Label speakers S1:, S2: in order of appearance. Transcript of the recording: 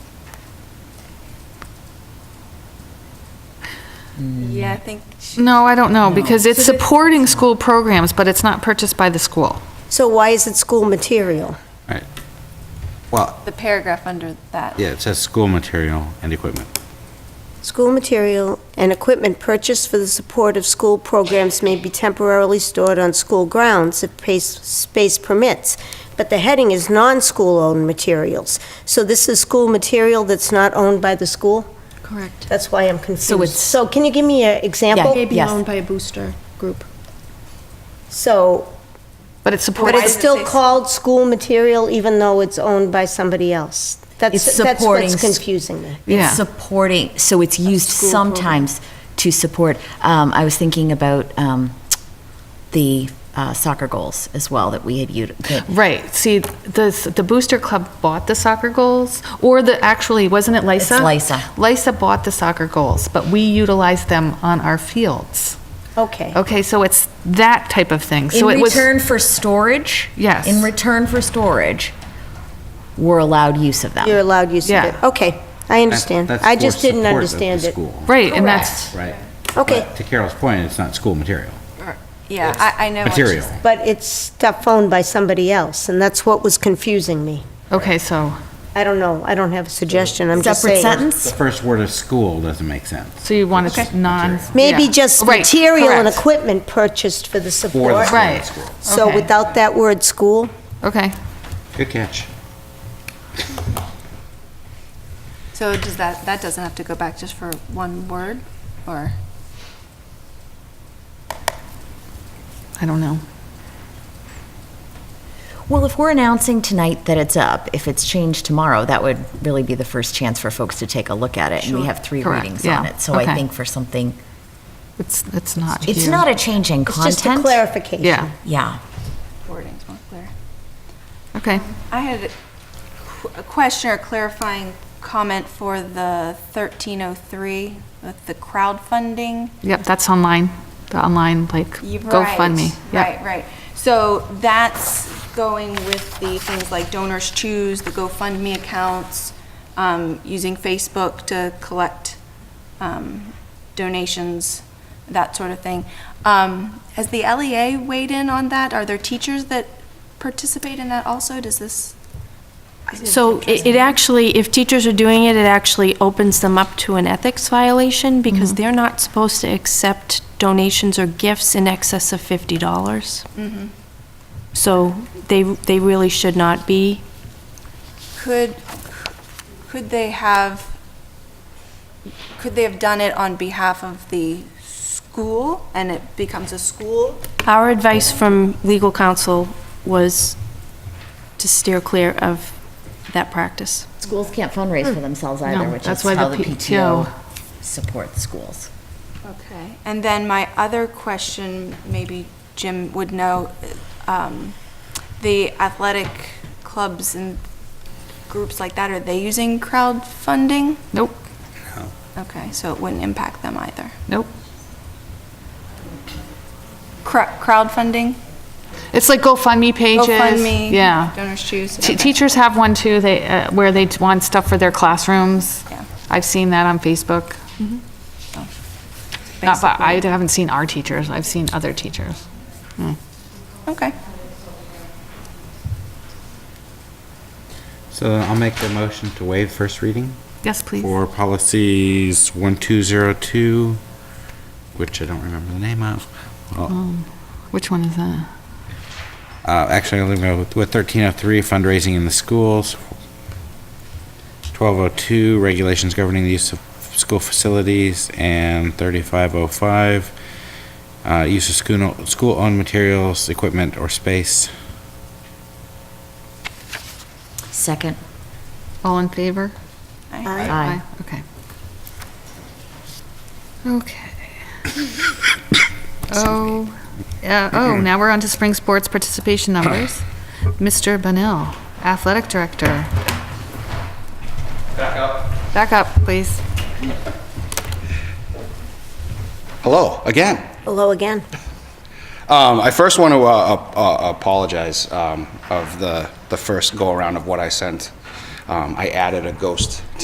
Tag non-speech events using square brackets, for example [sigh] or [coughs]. S1: Yeah, I think, she-
S2: No, I don't know, because it's supporting school programs, but it's not purchased by the school.
S3: So why is it school material?
S4: Well,
S1: the paragraph under that.
S4: yeah, it says school material and equipment.
S3: School material and equipment purchased for the support of school programs may be temporarily stored on school grounds if pace- space permits, but the heading is non-school-owned materials. So this is school material that's not owned by the school?
S5: Correct.
S3: That's why I'm confused.
S5: it's-
S3: So can you give me an
S5: May
S3: example?
S5: be
S6: Yes.
S5: owned by a booster group.
S3: So,
S2: But it's supporting.
S3: but it's
S1: it
S3: still
S1: say-
S3: called school material even though it's owned by somebody else? That's
S6: It's
S3: That's
S6: supporting
S3: what's
S6: s-
S3: confusing me.
S2: Yeah.
S6: It's supporting, so it's used
S5: school
S6: sometimes to support, um, I was thinking about, um, the uh, soccer goals as well that we had used.
S2: Right, see, the, the Booster Club bought the soccer goals, or the, actually, wasn't it
S6: It's
S2: Lysa?
S6: LISA.
S2: Lysa bought the soccer goals, but we utilized them on our fields.
S3: Okay.
S2: Okay, so it's that type of thing.
S6: In
S2: So it was
S6: return for storage?
S2: Yes.
S6: In return for storage, we're allowed use of them.
S3: You're allowed use of
S2: Yeah.
S3: it. Okay, I understand.
S4: That's
S3: I
S4: for
S3: just didn't
S4: support of the
S3: understand it.
S4: school,
S2: Right, and that's,
S4: Right.
S3: Okay,
S4: But To Carol's point, it's not school material.
S1: Yeah, I, I know what she's
S4: Material.
S1: saying.
S3: but it's stuff owned by somebody else, and that's what was confusing me.
S2: okay, so,
S3: I don't know, I don't have a suggestion, I'm just
S6: Separate
S3: saying.
S4: The
S6: sentence?
S4: first word of school doesn't make sense.
S2: so you want it non.
S3: Maybe
S2: yeah.
S3: just
S2: Right,
S3: material and
S2: correct.
S3: equipment purchased for the
S4: For the
S3: support.
S4: school.
S2: Right.
S4: school.
S3: So
S2: Okay.
S3: without that word "school,"
S2: Okay,
S4: Good catch.
S1: So does that, that doesn't have to go back just for one word, or?
S2: I don't know.
S6: Well, if we're announcing tonight that it's up, if it's changed tomorrow, that would really be the first chance for folks to take a look at it. And we have three
S2: Correct,
S6: readings on
S2: yeah,
S6: it. So I
S2: okay.
S6: think for something,
S2: It's, it's not
S6: it's
S2: here.
S6: not a change in
S3: it's just a
S6: content.
S3: clarification.
S2: Yeah,
S6: Yeah.
S1: Wording's more clear.
S2: okay.
S1: I had a qu- a question or clarifying comment for the 1303 with the crowdfunding.
S2: Yep, that's online, the online, like,
S1: You-
S2: GoFundMe.
S1: right,
S2: Yep.
S1: Right, right. So that's going with the things like Donors Choose, the GoFundMe accounts, um, using Facebook to collect um, donations, that sort of thing. Um, Has the LEA weighed in on that? Are there teachers that participate in that also? Does this?
S7: So it it actually, if teachers are doing it, it actually opens them up to an ethics violation because they're not supposed to accept donations or gifts in excess of fifty dollars. So they, they really should not be.
S1: Could, could they have, could they have done it on behalf of the school and it becomes a school?
S7: Our advice from legal counsel was to steer clear of that practice.
S6: Schools can't fundraise for themselves
S2: Hmm. No,
S6: either, which
S2: that's
S6: is
S2: why
S6: how
S2: the
S6: the
S2: PTO
S6: PTO supports schools.
S1: Okay. And then my other question, maybe Jim would know, um, the athletic clubs and groups like that, are they using crowdfunding?
S2: Nope,
S1: Okay, so it wouldn't impact them either.
S2: nope.
S1: Cra- Crowdfunding?
S2: It's like GoFundMe pages.
S1: GoFundMe,
S2: Yeah.
S1: Donors Choose,
S2: T-
S1: okay.
S2: Teachers have one too, they, uh, where they want stuff for their classrooms.
S1: Yeah.
S2: I've seen that on Facebook.
S1: Mm-hmm.
S2: Not, but I haven't seen our teachers, I've seen other teachers.
S1: Okay.
S4: So I'll make the motion to waive first reading
S2: Yes, please.
S4: for policies 1202, which I don't remember the name of. Well,
S2: Which one is that?
S4: uh, Actually, I'll go with with 1303, fundraising in the schools. 1202, regulations governing the use of school facilities. And 3505, uh, use of school- school-owned materials, equipment, or space.
S6: Second.
S2: All in favor?
S1: Aye.
S6: Aye.
S2: Okay. Okay. [coughs] Oh, uh, oh, now we're on to spring sports participation numbers. Mr. Benel, athletic director. Back up. Back up, please.
S8: Hello again.
S3: Hello again.
S8: Um, I first want to uh, uh, uh, apologize um, of the the first go around of what I sent. Um, I added a ghost